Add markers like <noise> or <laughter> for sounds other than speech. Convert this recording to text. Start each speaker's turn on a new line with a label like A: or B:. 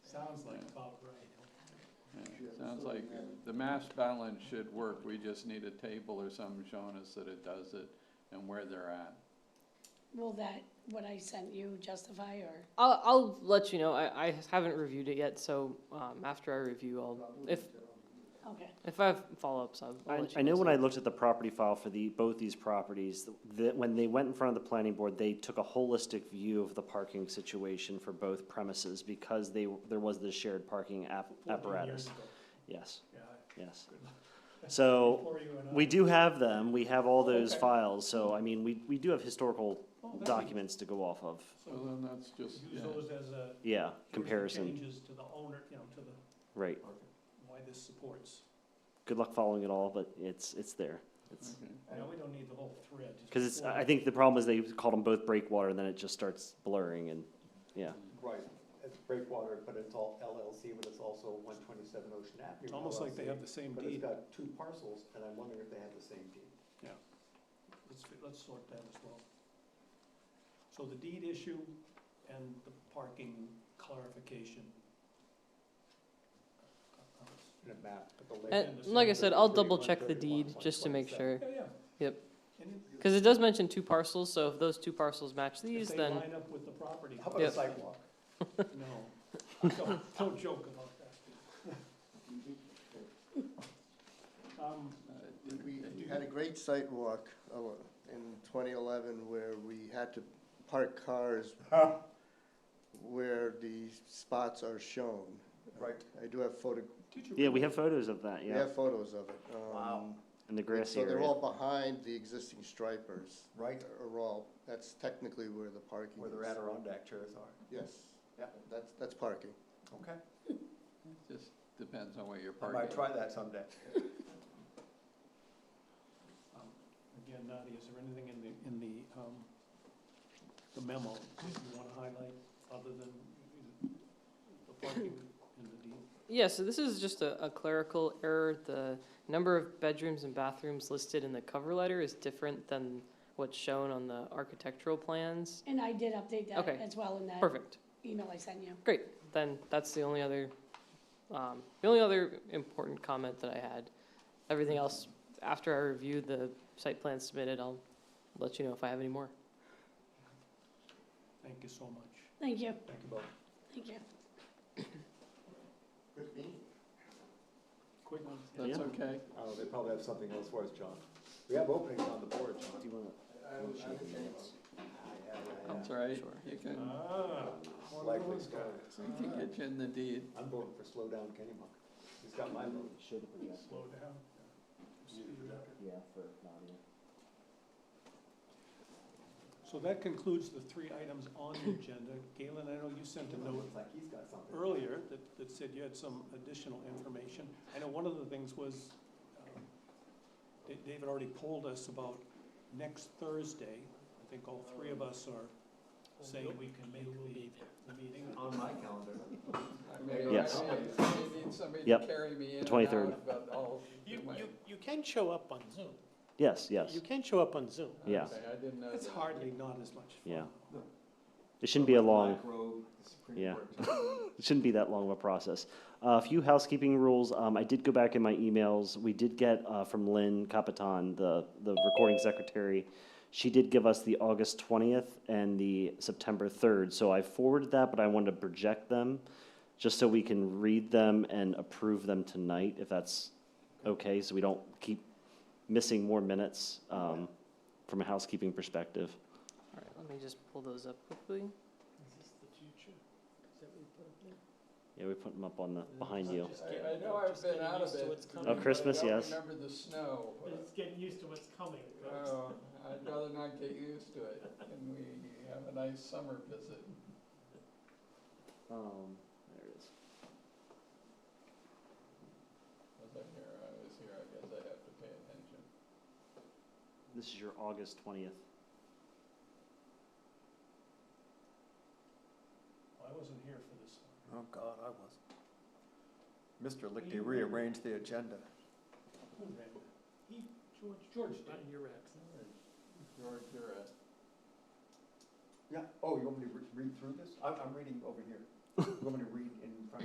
A: sounds like the mass balance should work, we just need a table or something showing us that it does it and where they're at.
B: Will that, what I sent you justify or?
C: I'll, I'll let you know. I, I haven't reviewed it yet, so um, after I review, I'll if
B: Okay,
C: if I have follow ups, I'll, I'll
D: I,
C: let you
D: I know
C: guys
D: when I looked at the property file for the, both these properties, that when they went in front of the planning board, they took a holistic view of the parking situation for both premises because they, there was this shared parking app, apparatus. Yes, yes. So, we do have them, we have all those
A: Okay.
D: files, so I mean, we, we do have historical
E: Oh,
A: that's-
D: documents to go off of,
A: So then that's just,
E: Use
A: yeah,
E: those as a.
D: yeah, comparison,
E: Changes to the owner, you know, to the,
D: right.
E: why this supports.
D: Good luck following it all, but it's, it's there. It's,
A: okay.
E: I know we don't need the whole thread. just
D: Because it's,
E: four.
D: I think the problem is they called them both breakwater, and then it just starts blurring, and, yeah.
F: Right, it's Breakwater, but it's all LLC, but it's also one twenty-seven Ocean Avenue.
E: It's almost like they
F: LLC,
E: have the same
F: But it's
E: deed.
F: got two parcels, and I'm wondering if they have the same deed.
E: Let's, fi- let's sort that as well. So the deed issue and the parking clarification. Uh,
F: In a map, but the
C: know.
F: layout.
E: And
C: And like I said, I'll double
F: 31,
C: check the
F: 31,
C: deed just to make
F: 127.
C: sure,
E: Yeah, yeah.
C: Yep.
E: And it-
C: because it does mention two parcels. So if those two parcels match
E: if
C: these,
E: they
C: then
E: Line up with the property.
F: How about a
E: <laughs>
C: Yep.
F: sidewalk?
E: No, don't, don't joke about that. Um,
G: We had a great site walk uh, in 2011 where we had to park cars where the spots are shown.
F: Right.
G: I do have photo,
E: did you
D: Yeah, we
E: really-
D: have photos of that,
G: we
D: yeah,
G: have photos of it. um,
F: Wow.
D: in the grassy
G: So they're
D: area.
G: all behind the existing stripers.
F: Right.
G: Are all, that's technically where the parking is.
F: Where the Adirondack chairs are.
G: Yes.
F: Yeah.
G: That's, that's parking.
F: Okay,
A: It just depends on where you're
F: I
A: parking.
F: might try that someday.
E: Um, Again, Nadia, is there anything in the, in the, um, the memo that you wanna highlight, other than the parking and the deed?
C: yeah. So this is just a, a clerical error. The number of bedrooms and bathrooms listed in the cover letter is different than what's shown on the architectural plans.
B: and I did update that
C: Okay.
B: as well in that
C: Perfect.
B: email I sent you.
C: Great, then that's the only other, um, the only other important comment that I had. Everything else, after I review the site plan submitted, I'll let you know if I have any more.
E: Thank you so much.
B: Thank you,
E: Thank you both.
B: thank you.
G: Good meeting.
E: Quick one.
A: That's
D: Yeah.
A: okay.
F: Oh, they probably have something else for us, John. We have openings on the board, John.
D: Do you wanna-
F: Yeah, yeah, yeah.
A: That's all right.
C: Sure.
A: You can,
E: Ah. one of
F: Likely
E: those
F: sky.
A: we can get you in the deed.
F: I'm voting for slow down Kenny Monk. He's got my vote.
D: Show the
E: guys.
D: projector,
E: Slow down. Speed up.
D: yeah, for Nadia.
E: So that concludes the three items on the agenda. Galen, I know you sent a note
F: Looks like he's got something.
E: earlier that, that said you had some additional information. I know one of the things was, um, Da- David already polled us about next Thursday. I think all three of us are saying we can make the, the meeting.
F: On my calendar.
D: Yes.
A: I need somebody to
D: Yep.
A: carry me in and
D: 23rd.
A: out, but I'll do my-
E: you can show up on Zoom.
D: Yes, yes,
E: can show up on Zoom.
D: yeah.
A: Okay, I didn't know
E: It's
A: that.
E: hardly not as much fun.
D: Yeah. it shouldn't be a long, Yeah. it shouldn't be that long of a process. Uh, A few housekeeping rules, um, I did go back in my emails, we did get, uh, from Lynn Capitan, the, the recording secretary, she did give us the August twentieth and the September third, so I forwarded that, but I wanted to project them, just so we can read them and approve them tonight, if that's okay, so we don't keep missing more minutes, um, from a housekeeping perspective.
C: All right, let me just pull those up quickly.
D: Yeah, we put them up on the, behind you.
A: I I know I've been out of it.
D: Oh, Christmas, yes.
A: I don't remember the snow.
H: It's getting used to what's coming.
A: Oh, I'd rather not get used to it. Can we have a nice summer visit?
D: Um, there it is.
A: Was I here? I was here. I guess I have to pay attention.
D: This is your August twentieth.
E: I wasn't here for this one.
F: Oh, God, I was. Mr. Lichty rearranged the agenda.
E: Who ran that? He, George, George did.
H: your absence.
A: George, you're at.
F: Yeah, oh, you want me to re- read through this? I'm, I'm reading over here. You want me to read in front